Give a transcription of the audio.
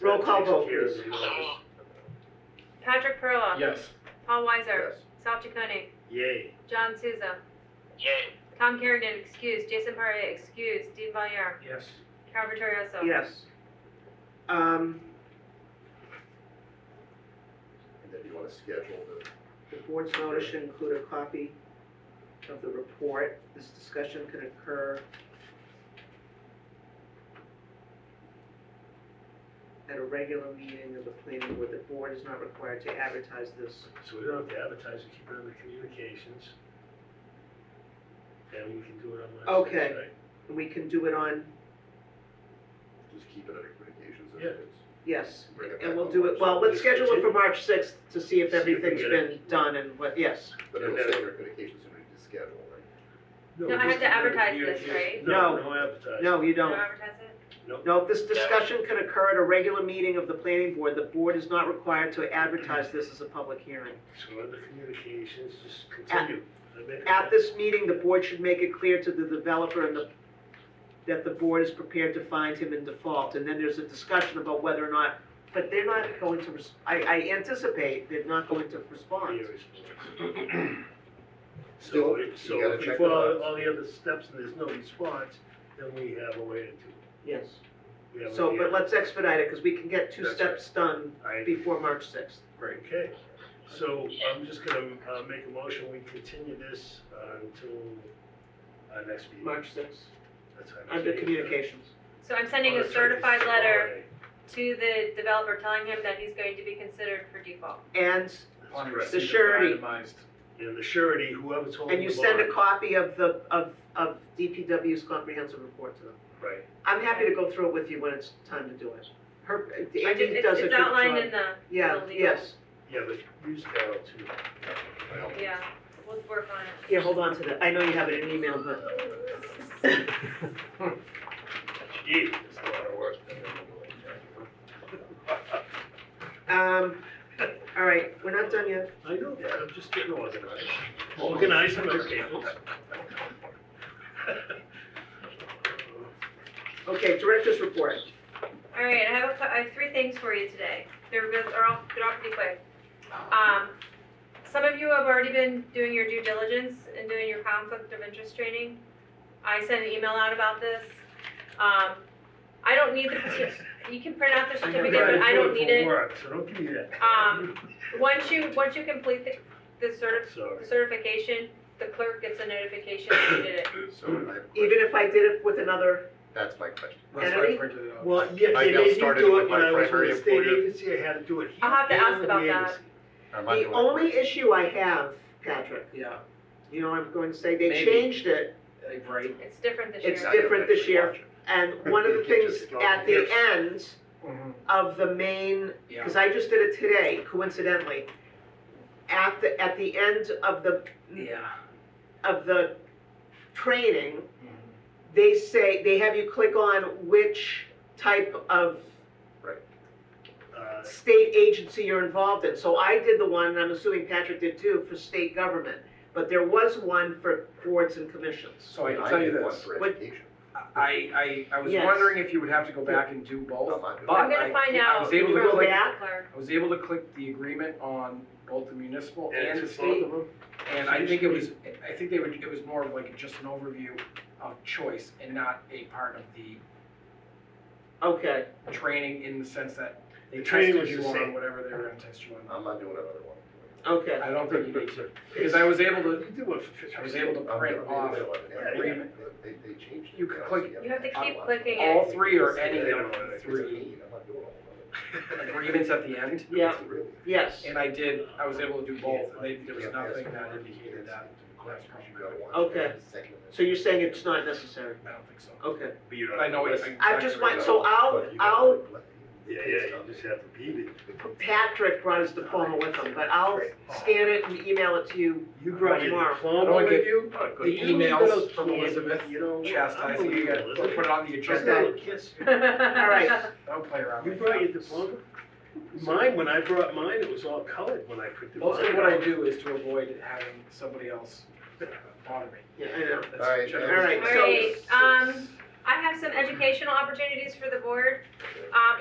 Roll That call takes vote, care of please. the unanimous. Patrick Perla. Yes. Paul Weiser. Yes. Sal Chaconi. Yay. John Souza. Yay. Tom Kerrigan, excused. Jason Parra, excused. Dean Valier. Yes. Carol Vittorioso. Yes. Um, And then you wanna schedule the, the board's notice should include a copy of the report. This discussion can occur at a regular meeting of the planning board. The board is not required to advertise this. So we don't have to advertise, we keep it under communications. And we can do it on Wednesday. Okay. And we can do it on, just keep it under communications and Yeah. it's. yes, bring it and back we'll on do it, Wednesday. well, let's schedule it for March sixth to see if See if we everything's get it. been done and what, yes. But it'll stay under communications and we need to schedule, right? No, I we have just keep it under to advertise this, communications. right? No, No. no advertising. No, you You don't don't. advertise it? No, this discussion can occur at a regular meeting of the planning board. The board is not required to advertise this as a public hearing. So under communications, just continue. I make a- At this meeting, the board should make it clear to the developer and the, that the board is prepared to find him in default, and then there's a discussion about whether or not, but they're not going to, res- I, I anticipate they're not going to respond. Years. So, Still, if- you so gotta if we check the follow box. all the other steps and there's no response, then we have a way to do it. Yes. We have So, a- but let's expedite it, because we can get two That's steps done I- before March sixth. Okay, so I'm just gonna, uh, make a motion, we continue this, uh, until our next meeting. sixth. That's how I Under see it. communications. So I'm sending Oh, a that's right, it's certified a letter holiday. to the developer telling him that he's going to be considered for default. And, That's upon correct. receipt of the surety. itemized And the surety, whoever's holding and the you send a bond. copy of the, of, of DPW's comprehensive report to them. Right, I'm happy to go through it with you when it's time to do it. Her, I did- Andy it's- does a good It's job. outlined in the, Yeah, legal- yes. yeah, but use Carol too. Well, yeah, we'll work on it. Here, hold on to that. I know you have it in email, but Gee, it's a lot of work. Um, all right, we're not done yet. I know that, I'm just getting organized. Organizing my papers. Okay, director's report. All right, I have, a cou- I have three things for you today. They're, real- they're all, they're all pretty quick. Um, some of you have already been doing your due diligence and doing your conflict of interest training. I sent an email out about this. Um, I don't need the, certi- you can print out the I'm certificate, gonna but I don't for need it. work, So don't give me that. Um, Once you, once you complete the, the certi- Sorry. the certification, the clerk gets a notification that you did it. So I have a Even question, if I did it with another, that's my question. That's why I Kennedy? printed it out. Well, yeah, I they got made me started do with it my when I was with primary the state employer. agency, I had to do it. I'll have to here ask and about the that. agency. Am I the doing it only right? issue I have, Patrick, Yeah, you know what I'm going to say? They Maybe. changed it, like, right. It's different this year. It's Not gonna different this actually year. watch it. and one of the things at the end Mm-hmm. of the main Yeah. Because I just did it today, coincidentally. At the, at the end of the, Yeah. of the training, Mm-hmm. they say, they have you click on which type of Uh, state agency you're involved in. So I did the one, and I'm assuming Patrick did too, for state government. But there was one for boards and commissions. So Oh, I can tell you did one this, for What- education. I, I, I was Yes. Oh. wondering if you would have to go back and do both, I'm not doing but I'm I, gonna find I out. was able to Can you go go like, back? Clerk. I was able to click the agreement on both the municipal And and the it's both state. of them? And I think it was, I think they would, it was more of like just an overview of choice and not a part of the Okay, training in the sense that they The training tested was you the on same. whatever they were gonna test you on. I'm not doing another one. okay. I don't think you need to, because I was able to, You do it for I was able to I'm print doing off another one. Yeah, agreement. They, they changed it. You could Yeah, click- so You have to I keep watch clicking it. it. all three or any Yeah, of the It's a three mean, I'm not doing all of it. agreements at the end. Yeah, It's really- yes. And I did, I was able to do both, and they- there was Yeah, nothing that's that fine. indicated that, That's fine. You gotta watch Okay. it. Second one. So you're saying it's not necessary? I don't think so. Okay. But you don't But I know have it. to- I just want, so I'll, But you gotta I'll let- Yeah, yeah, you just have to beat it. Patrick brought his diploma with him, but I'll scan it and email it to you. You brought your Tomorrow. diploma Don't with get you? the You don't emails know, from kid, Elizabeth You know. Chastising, you gotta Elizabeth. put it on the Just Okay. agenda, a kiss. All right, don't play around. You like brought that. your diploma? Mine, when I brought mine, it was all colored when I printed mine. Mostly what I do is to avoid having somebody else uh, bother me. yeah, I know. That's All right, generally- All right, All right, um, I have some educational opportunities for the board. Um,